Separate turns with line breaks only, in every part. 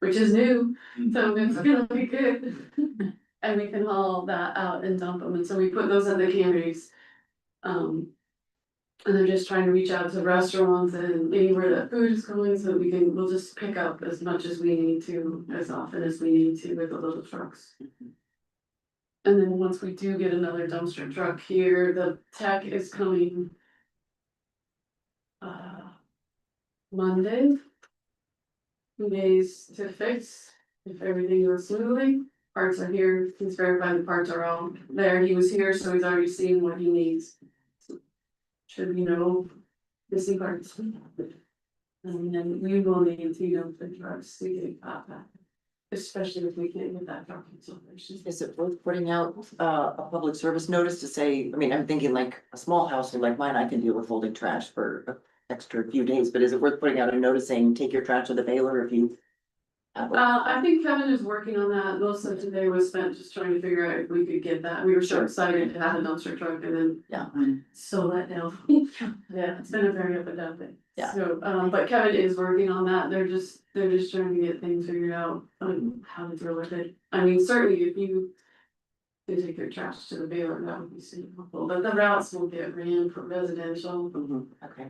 which is new, so it's gonna be good. And we can haul that out and dump them, and so we put those in the canneries. Um. And they're just trying to reach out to restaurants and anywhere that food is going, so we can, we'll just pick up as much as we need to, as often as we need to with the little trucks. And then once we do get another dumpster truck here, the tech is coming. Uh. Monday. Two days to fix, if everything goes smoothly, parts are here, he's verified the parts are all there, he was here, so he's already seen what he needs. Should be no missing parts. And then we will need to dump the trucks to get that back, especially if we can't get that truck in salvation.
Is it worth putting out uh a public service notice to say, I mean, I'm thinking like a small household like mine, I can deal with holding trash for an extra few days, but is it worth putting out a notice saying, take your trash to the baler if you? have it?"
Uh, I think Kevin is working on that, most of today was spent just trying to figure out if we could get that, we were so
Sure.
excited to have a dumpster truck and then.
Yeah.
So let down, yeah, it's been a very up and down thing.
Yeah.
So, um, but Kevin is working on that, they're just, they're just trying to get things figured out, on how to deal with it, I mean, certainly if you. could take your trash to the baler, that would be super helpful, but the routes will get ran for residential,
Mhm, okay,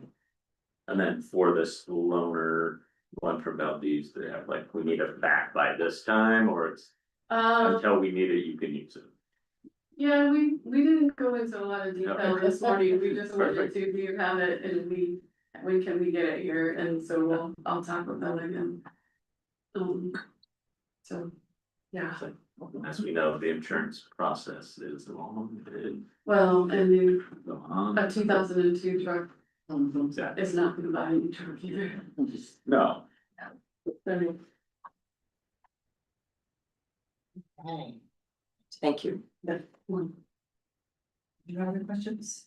And then for this loaner one from Valdez, they have like, we need it back by this time or it's
um.
until we need it, you can use it.
Yeah, we, we didn't go into a lot of detail
Okay.
this morning, we just wanted
Perfect.
to, do you have it, and we, when can we get it here, and so we'll, I'll talk with them again. Um, so, yeah,
As we know, the insurance process is long and
well, and then
go on.
a two thousand and two truck
mhm,
Exactly.
is not gonna buy any truck either,
mhm.
No,
so,
Okay. Thank you.
mm.
Do you have any questions?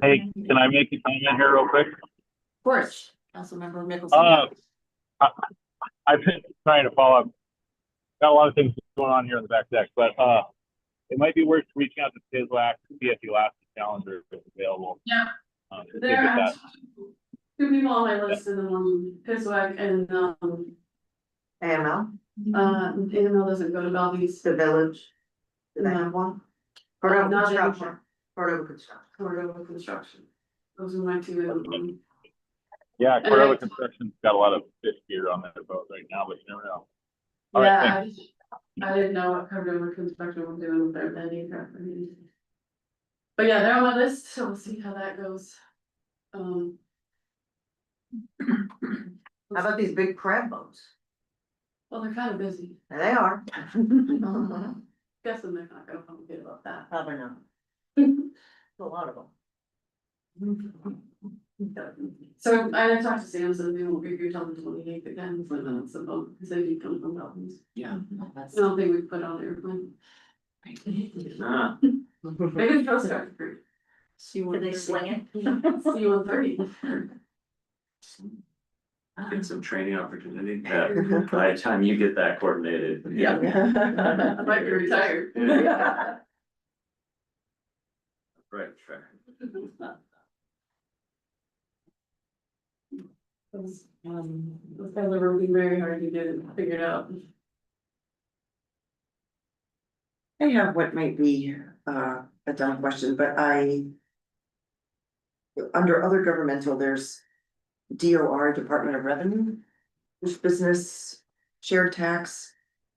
Hey, Can I make a comment here real quick?
Of course, Councilmember Mickelson.
Uh, I, I've been trying to follow up. Got a lot of things going on here in the back deck, but, uh, it might be worth reaching out to Tislak to see if the last calendar is available.
Yeah.
Um, to
There
get
are
that.
two people on my list, and then, um, Piswag and, um,
AML,
uh, AML doesn't go to Valdez,
the village. Do
Mm-hmm.
they have one? Cordova
Not anymore.
Construction, Cordova Construction.
Cordova Construction, those are my two, um,
Yeah,
right.
Cordova Construction's got a lot of fish gear on their boat right now, but you never know. All right,
Yeah, I I didn't know what covered over construction was doing with their venue. crap, I mean. But yeah, they're on my list, so we'll see how that goes. Um.
How about these big crab boats?
Well, they're kind of busy,
There They are.
guessing they're not gonna complain about that.
Probably not. A lot of them.
So I talked to Sam, so we won't be here till the twenty eighth again, so that's about, so if you come from Dalton's.
Yeah. that's-
I don't think we put on airplane,
nah,
maybe the Coast Guard crew,
She wanted
they
to-
sling
C one thirty.
get some training opportunity. Uh, By the time you get that coordinated.
Yeah. I might be retired.
Yeah. Right, sure.
Those
Um,
those guys are working very hard, you didn't figure it out.
I have what might be uh a dumb question, but I. Under other governmental, there's DOR, Department of Revenue, which business, shared tax.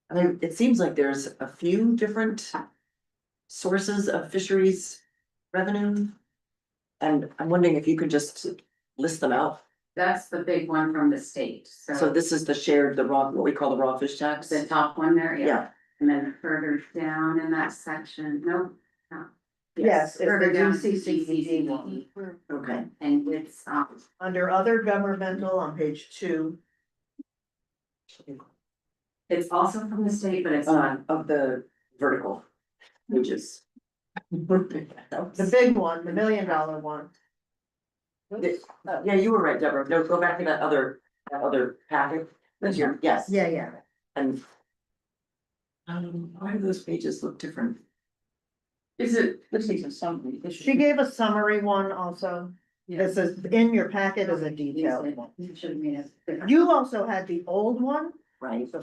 And I- it seems like there's a few different sources of fisheries revenue. And I'm wondering if you could just list them out.
That's the big one from the state,
So
so
this is the shared, the raw, what we call the raw fish tax.
the top one there, yeah,
Yeah,
and then further down in that section, no, no.
Yes, it's the
Further down,
GCCED one.
GCCED,
okay.
And it's, um,
Under other governmental on page two.
it's also from the state, but it's
Uh,
not,
of the vertical, which is.
The big one, the million dollar one.
Yeah, you were right, Deborah. No, go back to that other, that other packet. That's your, yes,
Uh-huh. Yeah, yeah.
and. Um, why do those pages look different?
Is it,
This is a summary.
She gave a summary one also. This is in your packet as a detailed one.
it should have made us.
You also had the old one,
Right.
the